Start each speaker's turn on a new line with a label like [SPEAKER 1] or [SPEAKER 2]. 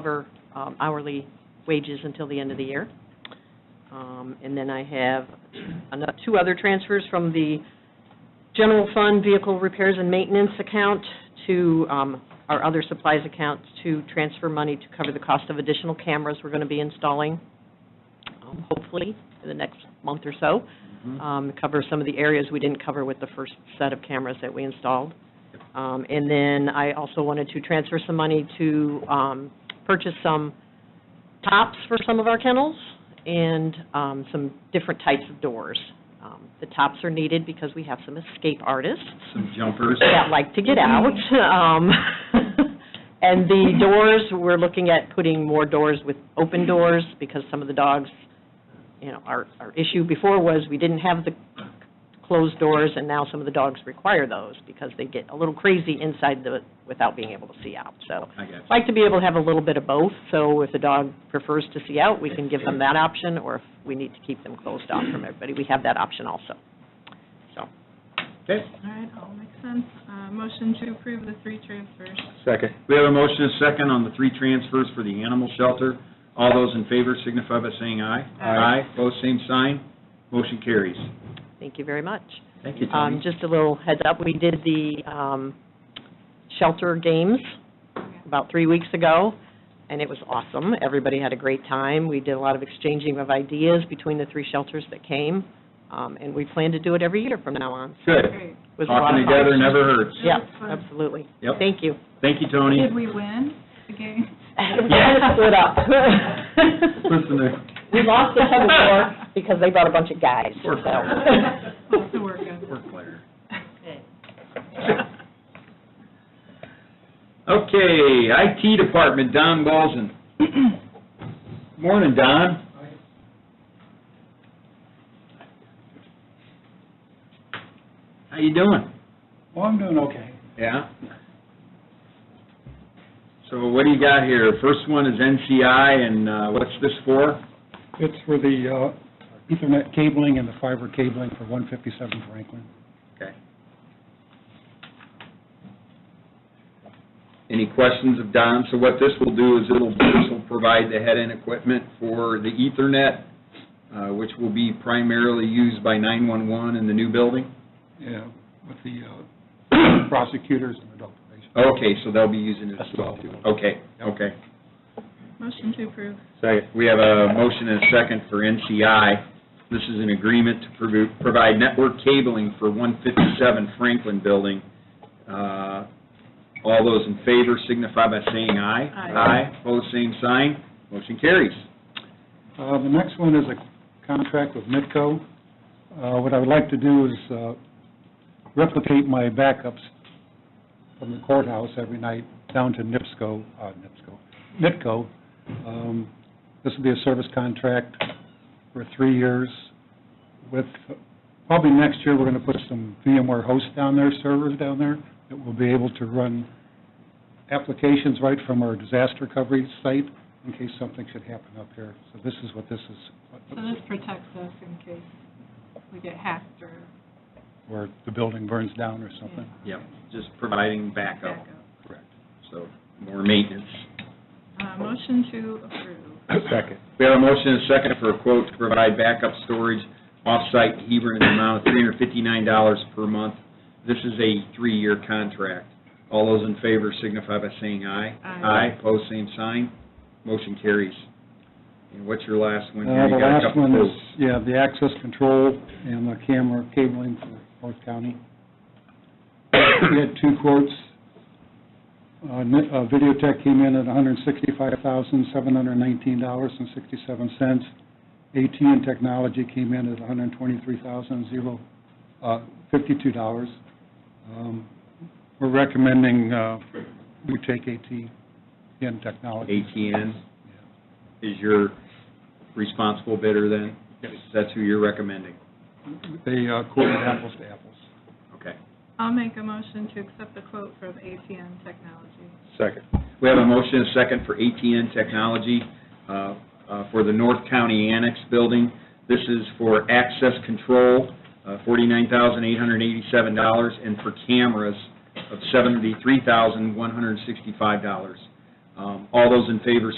[SPEAKER 1] cover um, hourly wages until the end of the year. Um, And then I have ano- two other transfers from the general fund vehicle repairs and maintenance account to um, our other supplies account to transfer money to cover the cost of additional cameras we're going to be installing, um, hopefully, in the next month or so
[SPEAKER 2] Mm-hmm.
[SPEAKER 1] um, cover some of the areas we didn't cover with the first set of cameras that we installed. Um, And then I also wanted to transfer some money to um, purchase some tops for some of our kennels and um, some different types of doors. Um, The tops are needed because we have some escape artists
[SPEAKER 2] Some jumpers.
[SPEAKER 1] that
[SPEAKER 2] Mm-hmm.
[SPEAKER 1] like to get out. Um, And the doors, we're looking at putting more doors with open doors because some of the dogs, you know, our, our issue before was we didn't have the closed doors and now some of the dogs require those because they get a little crazy inside the, without being able to see out. So
[SPEAKER 2] I got you.
[SPEAKER 1] like to be able to have a little bit of both, so if the dog prefers to see out, we can give them that option, or if we need to keep them closed off from everybody, we have that option also. So,
[SPEAKER 2] Okay.
[SPEAKER 3] All right, all makes sense. Uh, Motion to approve the three transfers.
[SPEAKER 4] Second.
[SPEAKER 2] We have a motion and a second on the three transfers for the animal shelter. All those in favor signify by saying aye.
[SPEAKER 3] Aye.
[SPEAKER 2] Aye, pose same sign, motion carries.
[SPEAKER 1] thank you very much.
[SPEAKER 2] Thank you,
[SPEAKER 1] Um,
[SPEAKER 2] Tony.
[SPEAKER 1] just a little heads up, we did the, um, shelter games about three weeks ago, and it was awesome. Everybody had a great time. We did a lot of exchanging of ideas between the three shelters that came, um, and we plan to do it every year from now on.
[SPEAKER 2] Good.
[SPEAKER 3] Great.
[SPEAKER 1] It was a lot
[SPEAKER 2] Talking
[SPEAKER 1] of fun.
[SPEAKER 2] together never hurts.
[SPEAKER 3] It
[SPEAKER 1] Yeah,
[SPEAKER 3] was fun.
[SPEAKER 1] absolutely.
[SPEAKER 2] Yep.
[SPEAKER 1] Thank you.
[SPEAKER 2] Thank you, Tony.
[SPEAKER 3] Did we win the game?
[SPEAKER 2] Yeah.
[SPEAKER 1] Split up.
[SPEAKER 2] Listen to,
[SPEAKER 1] We lost the tug of war because they brought a bunch of guys, so.
[SPEAKER 2] Poor player.
[SPEAKER 3] Lots of work on it.
[SPEAKER 2] work player. Okay, IT Department, Don Balzan. Morning, Don. How you doing?
[SPEAKER 5] Well, I'm doing okay.
[SPEAKER 2] Yeah? So what do you got here? First one is NCI, and uh, what's this for?
[SPEAKER 5] It's for the uh, Ethernet cabling and the fiber cabling for 157 Franklin.
[SPEAKER 2] Okay. Any questions of Don? So what this will do is it'll, this will provide the head-end equipment for the Ethernet, uh, which will be primarily used by 911 in the new building?
[SPEAKER 5] Yeah, with the uh, prosecutors and adult probation.
[SPEAKER 2] Okay, so they'll be using it as well, too. Okay, okay.
[SPEAKER 3] Motion to approve.
[SPEAKER 2] Second. We have a motion and a second for NCI. This is an agreement to provi- provide network cabling for 157 Franklin Building. Uh, All those in favor signify by saying aye.
[SPEAKER 3] Aye.
[SPEAKER 2] Aye, pose same sign, motion carries.
[SPEAKER 5] Uh, The next one is a contract with Mitco. Uh, What I would like to do is uh, replicate my backups from the courthouse every night down to NIPSCO, uh, NIPSCO, Mitco. Um, This will be a service contract for three years with, probably next year, we're going to put some VMware hosts down there, servers down there, that will be able to run applications right from our disaster recovery site in case something should happen up here. So this is what this
[SPEAKER 3] So
[SPEAKER 5] is,
[SPEAKER 3] this protects us in case we get hacked or
[SPEAKER 5] where the building burns down or something.
[SPEAKER 2] Yep, just providing
[SPEAKER 3] backup.
[SPEAKER 2] backup,
[SPEAKER 5] Correct.
[SPEAKER 2] so more maintenance.
[SPEAKER 3] Uh, Motion to approve.
[SPEAKER 4] Second.
[SPEAKER 2] We have a motion and a second for a quote to provide backup storage off-site in Hebron in the amount of $359 per month. This is a three-year contract. All those in favor signify by saying aye.
[SPEAKER 3] Aye.
[SPEAKER 2] Aye, pose same sign, motion carries. And what's your last one? here?
[SPEAKER 5] Uh,
[SPEAKER 2] You
[SPEAKER 5] The
[SPEAKER 2] got a
[SPEAKER 5] last
[SPEAKER 2] couple
[SPEAKER 5] one is,
[SPEAKER 2] quotes.
[SPEAKER 5] yeah, the access control and the camera cabling for North County. We had two quotes. Uh, Ni- uh, Videotech came in at $165,719.67. at and Technology came in at $123,052. uh, Um, We're recommending uh, we take at and Technology.
[SPEAKER 2] ATN is your responsible bidder then?
[SPEAKER 5] Yes.
[SPEAKER 2] That's who you're recommending?
[SPEAKER 5] They uh, quoted apples to apples.
[SPEAKER 2] Okay.
[SPEAKER 3] I'll make a motion to accept the quote from ATN Technology.
[SPEAKER 4] Second.
[SPEAKER 2] We have a motion and a second for ATN Technology uh, uh, for the North County Annex Building. This is for access control, uh, $49,887, and for cameras of $73,165. Uh, Um, All those in favor